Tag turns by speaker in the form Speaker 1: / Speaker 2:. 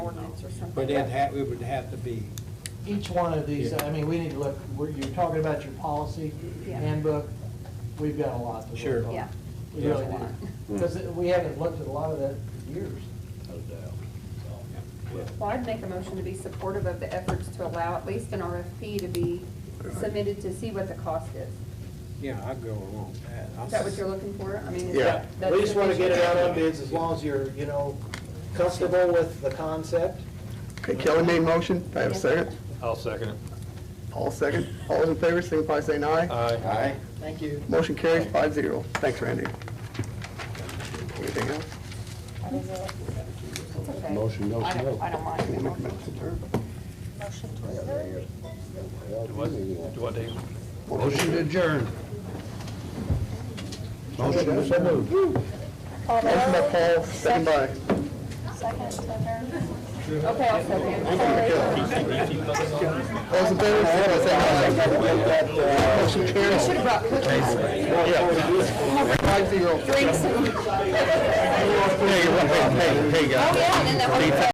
Speaker 1: But it ha, it would have to be,
Speaker 2: Each one of these,
Speaker 1: Yeah.
Speaker 2: I mean, we need to look, we're- you're talking about your policy
Speaker 3: Yeah.
Speaker 2: handbook, we've got a lot to
Speaker 1: Sure.
Speaker 2: look on.
Speaker 3: Yeah.
Speaker 2: We really
Speaker 3: There's a lot.
Speaker 2: do, because we haven't looked at a lot of that in years.
Speaker 4: No doubt.
Speaker 3: Well, I'd make a motion to be supportive of the efforts to allow at least an RFP to be submitted to see what the cost is.
Speaker 1: yeah, I'd go along with that. I'll
Speaker 3: Is that what
Speaker 1: s-
Speaker 3: you're looking for? I mean, is
Speaker 5: Yeah.
Speaker 3: that? that's
Speaker 2: We just want to get it out on
Speaker 3: sufficient?
Speaker 2: bids as long as you're, you know, comfortable with the concept.
Speaker 5: Okay, Kelly made a motion, do I have a
Speaker 3: Yeah.
Speaker 5: second?
Speaker 4: I'll second it.
Speaker 5: All second, all those in favor, signify by saying aye.
Speaker 4: Aye.
Speaker 2: Thank you.
Speaker 5: Motion carries five zero. Thanks, Randy. Anything else?
Speaker 3: It's okay.
Speaker 6: Motion, no
Speaker 3: I
Speaker 6: smoke.
Speaker 3: don't, I don't mind.
Speaker 4: Do what, do what, Dave?
Speaker 6: Motion to adjourn. Motion to adjourn.
Speaker 5: Motion by Paul, second by
Speaker 3: Okay, I'll second.
Speaker 5: All those in favor, signify by saying aye. Motion carries. Should have brought cookies. Five zero. Drinks. Hey, hey, hey, guys.
Speaker 3: Oh, Yeah, and then that one.